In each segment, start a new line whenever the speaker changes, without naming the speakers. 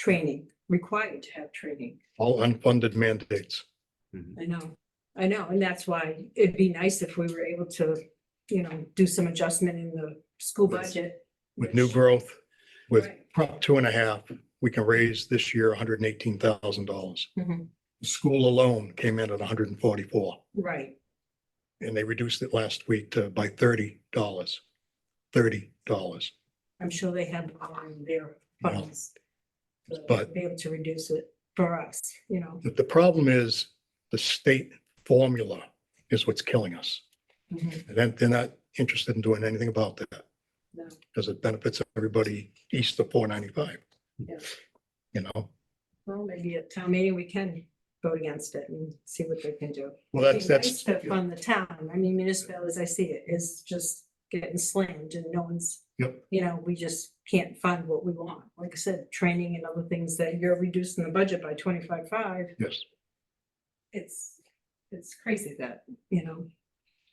training, required to have training.
all unfunded mandates.
I know, I know, and that's why it'd be nice if we were able to, you know, do some adjustment in the school
With-
budget.
With new
which-
growth, with
Right.
Prop two and a half, we can raise this year hundred and eighteen thousand dollars.
Mhm,
The School alone came in at hundred and forty-four,
Right,
and they reduced it last week to by thirty dollars. Thirty dollars.
I'm sure they have more in their
Yeah.
funds. to
But-
Be able to reduce it for us, you know.
The problem is the state formula is what's killing us.
Mhm,
And then they're not interested in doing anything about that
no.
because it benefits everybody east of four ninety-five.
Yeah.
You know,
Well, maybe at town meeting, we can vote against it and see what they can do.
well, that's, that's.
To fund the town, I mean municipal, as I see it, is just getting slammed and no one's.
Yep.
You know, we just can't fund what we want, like I said, training and other things that you're reducing the budget by twenty-five five,
Yes.
it's, it's crazy that, you know.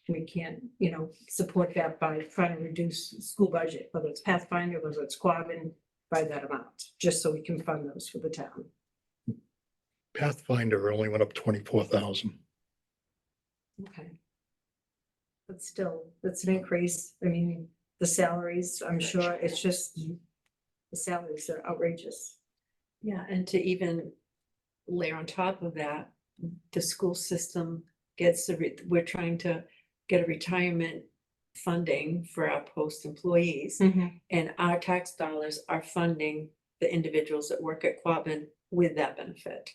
We can't, you know, support that by trying to reduce school budget, whether it's Pathfinder, whether it's Quabbin, by that amount, just so we can fund those for the town.
Pathfinder only went up twenty-four thousand.
Okay. But still, that's an increase. I mean, the salaries, I'm sure, it's just the salaries are outrageous.
Yeah, and to even layer on top of that, the school system gets the, re- we're trying to get a retirement funding for our post
Hmm.
employees,
Mm-hmm.
and our tax dollars are funding the individuals that work at Quabbin with that benefit.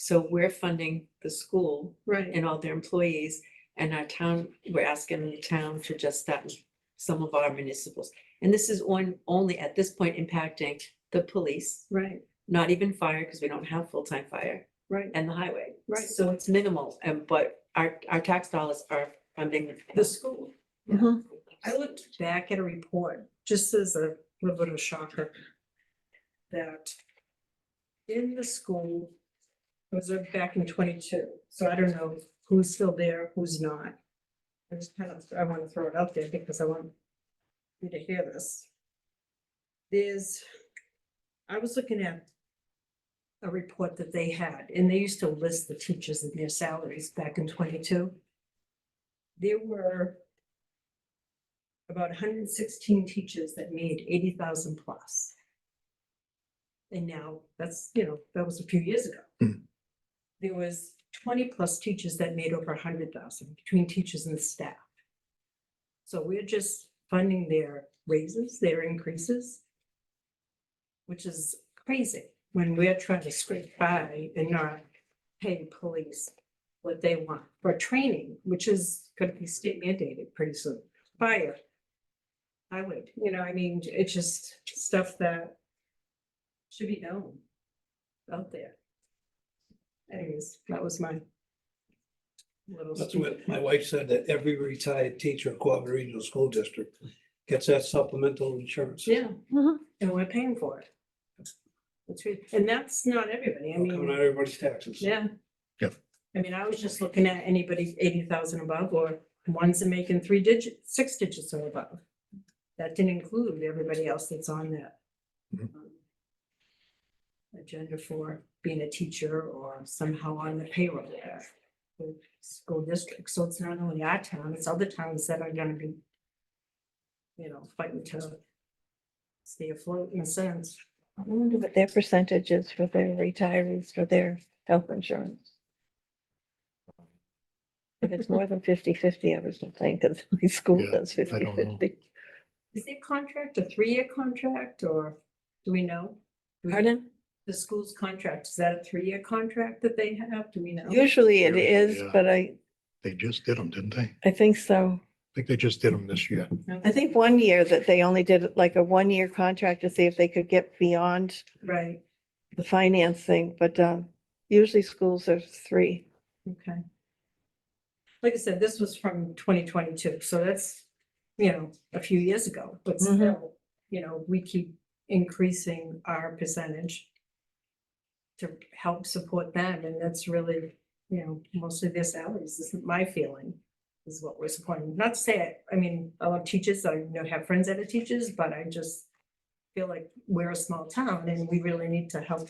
So we're funding the school
Right,
and all their employees, and our town, we're asking the town to just that, some of our municipals. And this is on, only at this point impacting the police,
right,
not even fire, because we don't have full-time fire,
right.
and the highway.
Right.
So it's minimal, and but our, our tax dollars are funding.
The school. Yeah.
Mhm.
I looked back at a report, just as a little bit of shocker. That in the school, it was uh, back in twenty-two, so I don't know who's still there, who's not. I just kind of, I want to throw it out there because I want you to hear this. There's, I was looking at a report that they had, and they used to list the teachers and their salaries back in twenty-two. There were about hundred and sixteen teachers that made eighty thousand plus. And now, that's, you know, that was a few years ago.
Hmm.
There was twenty plus teachers that made over hundred thousand between teachers and staff. So we're just funding their raises, their increases. Which is crazy when we're trying to scrape by and not pay police what they want for training, which is gonna be state mandated pretty soon. Fire, I would, you know, I mean, it's just stuff that should be known out there. Anyways, that was my little.
That's
speak.
what my wife said, that every retired teacher at Quabbin Regional School District gets that supplemental insurance.
Yeah, and we're paying for it. That's right, and that's not everybody, I
It'll Come out
mean,
of everybody's taxes.
yeah.
Yep.
I mean, I was just looking at anybody eighty thousand above or ones that making three digits, six digits or above. That didn't include everybody else that's on that.
Mhm.
um, Agenda for being a teacher or somehow on the payroll there. the School district, so it's not only our town, it's other towns that are gonna be. You know, fighting to. Stay afloat in a sense.
I wonder what their percentage is for their retirees for their health insurance. If it's more than 50-50, I was just saying, because my school
Yeah,
does 50-50.
I don't know.
Is their contract a three-year contract or do we know? Do we-
Pardon?
The school's contract, is that a three-year contract that they have? Do we know?
Usually it
Usually,
is,
yeah.
but I,
They just did them, didn't they? I
I think so.
think they just did them this year.
I think one year that they only did like a one-year contract to see if they could get beyond
Right,
the financing, but um, usually schools are three.
okay. Like I said, this was from twenty twenty-two, so that's, you know, a few years ago, but
Mhm.
still, you know, we keep increasing our percentage to help support them, and that's really, you know, mostly their salaries, is my feeling, is what we're supporting. Not to say, I mean, I love teachers, I you know, have friends that are teachers, but I just feel like we're a small town and we really need to help